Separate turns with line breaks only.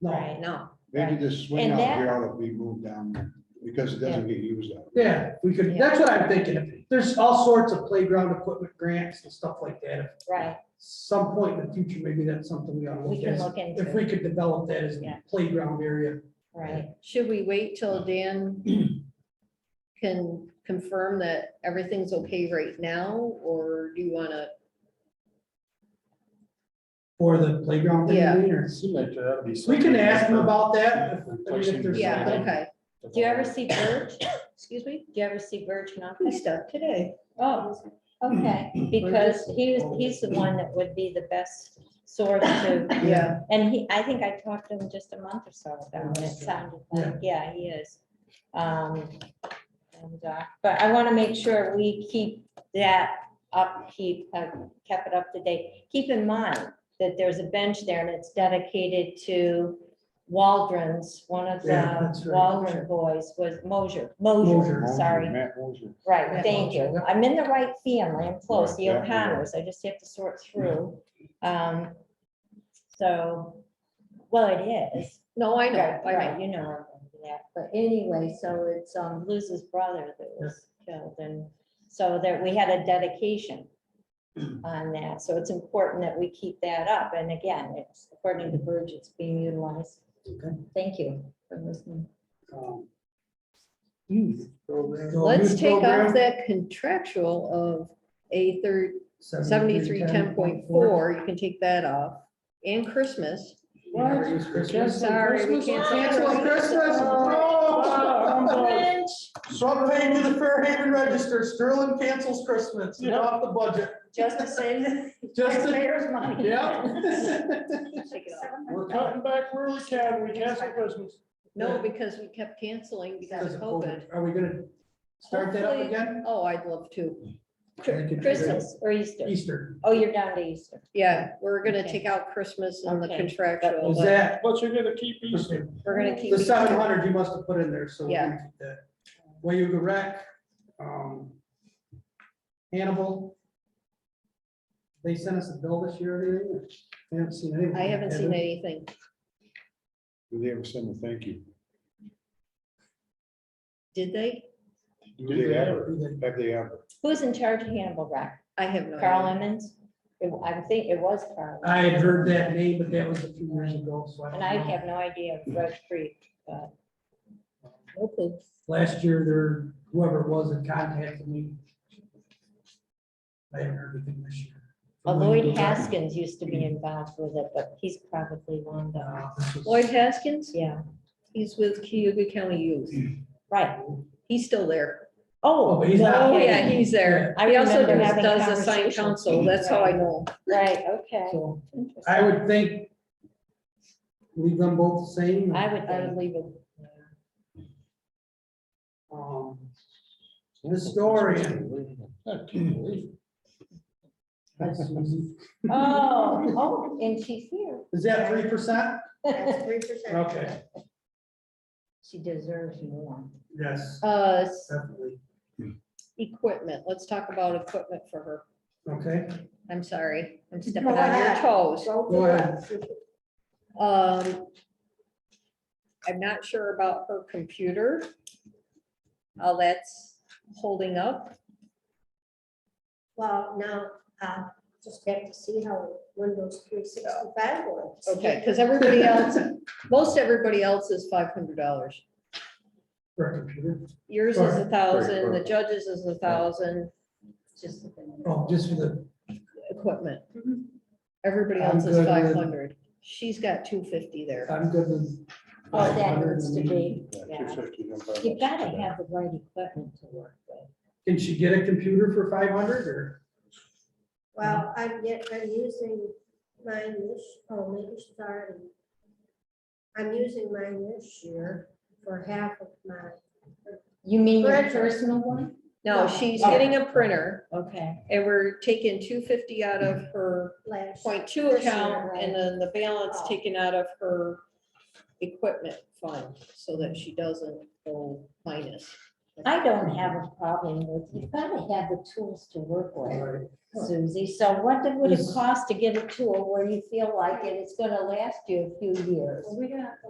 No,
Right, no,
Maybe this swing
And
out
that-
here ought to be moved down because it doesn't get used. out here.
yeah, we could, that's what I'm thinking. There's all sorts of playground equipment grants and stuff like that. At
right,
Some point in the future, maybe that's something we ought to
we
look
can
at.
look
If
into,
we
it,
could develop that as
Yeah.
a playground area.
right,
Should we wait till Dan can confirm that everything's okay right now, or do you wanna,
For the playground. thing,
Yeah.
or-
Seemed like that'd be
We can
something
ask them
for
about that. if- I mean, if
replacing
there's
yeah,
something.
okay,
the
do you ever
whole-
see Verge, do
excuse me?
you ever see Verge
We
Malcolm?
stuck today.
Oh, okay, because he was, he's the one that would be the best source to.
Yeah.
And he, I think I talked to him just a month or so ago, and it sounded like, yeah, he is. Um, and, uh, But I want to make sure we keep that up, keep, uh, kept it up to date. Keep in mind that there's a bench there and it's dedicated to Waldron's, one of
Yeah,
the
that's right.
Waldron boys was Mosier, Mosier,
Mosier,
sorry.
Matt Moser.
Right,
Yeah.
thank you. I'm in the right family. I'm close, the
Yeah, yeah, yeah.
O'Connors. I just have to sort through. Um, so, well, it is.
No, I know,
Right,
I
right,
know.
you know, yeah, but anyway, so it's, um, Luz's brother that was killed and so there, we had a dedication on that. So it's important that we keep that up. And again, it's according to Burge, it's being utilized.
Okay.
Thank you for listening.
Um,
Youth.
program- so
Let's
youth
take
program,
off that contractual of a third,
73,
seventy-three, ten point
10.4.
four, you can take that off, and Christmas.
We never use Christmas.
Sorry, we can't Oh. say
Cancel Christmas. Oh.
Oh.
No. Something to the Fairhaven Register, Sterling cancels Christmas, It's off the budget,
Just to save the
just, to-
taxpayers money.
yeah.
Take it off.
We're cutting back where we can, we cancel Christmas.
No, because we kept canceling because of COVID.
Are we gonna start that up
Hopefully-
again?
Oh, I''d love to.
Christmas or Easter?
Easter,
Oh, you're down to Easter.
Yeah, we're gonna
Okay.
take out Christmas and the
Okay.
contractual,
is
but
that,
But you're gonna keep Easter.
we're gonna keep.
the seven hundred you must have put in there, so. we
Yeah.
can keep that. Wayuga Rec, um, Hannibal. They sent us a bill this year, or anything? I haven't seen anything.
I haven't
Have
seen
they?
anything.
Did they ever send a thank you?
Did they?
Do they ever?
Do they?
Have they ever?
Who's in charge of Hannibal Rock?
I have no.
Carl
idea.
Emmons? It- I think it was Carl.
I had heard that name, but that was a few years ago, so I don't
And I
know.
have no idea of Red Creek.
Okay.
Last year, there, whoever it was that contacted me. I haven't heard anything this year.
Uh, Lloyd Haskins used to be involved with it, but he's probably long gone.
Uh, this was-
Lloyd Haskins,
Yeah,
he's with Cuyahoga County Youth.
right.
He's still there.
Oh, but he's not-
no
Oh,
kidding.
yeah, he's there.
I
He also
remember
does
having
does assign
conversations.
council. That's how I know. him.
Right, okay.
So
Interesting.
I would think. Leave them both the same.
I would, I would leave it.
um, Historian.
I can't believe it.
that's easy.
Oh, oh, and she's here.
Is that three percent?
Three percent.
Okay,
She deserves more.
yes,
Uh, s-
definitely.
equipment, let's talk about equipment for her.
Okay,
I'm sorry, I'm stepping
Go
on your
ahead.
toes.
go ahead.
Um, I'm not sure about her computer. All that's holding up.
Well, now, uh, just have to see how Windows three sixty-five works.
Okay, because everybody else, most everybody else is five hundred dollars.
For a computer.
Yours is a thousand, the
perfect.
judges is a thousand,
Just.
Oh, just for the,
equipment.
Mhm.
Everybody
I'm
else
good
is
with-
five hundred. She's got two fifty there.
I'm good with.
Oh, that needs to be, yeah. You
You
gotta have the right equipment to work with.
Can she get a computer for five hundred or?
Well, I'm get, I'm using mine this, oh, maybe starting. I'm using mine this year for half of my,
You mean
your
personal one?
No,
No.
she's
Oh.
getting a printer
Okay.
and we're taking two fifty out of her
last.
point two
This year,
account
right.
and then the balance
Oh.
taken out of her equipment fund so that she doesn't go minus.
I don't have a problem with, you've got to have the tools to work with, Susie. So what did- would it cost to get a tool where you feel like it is going to last you a few years?
We're gonna have to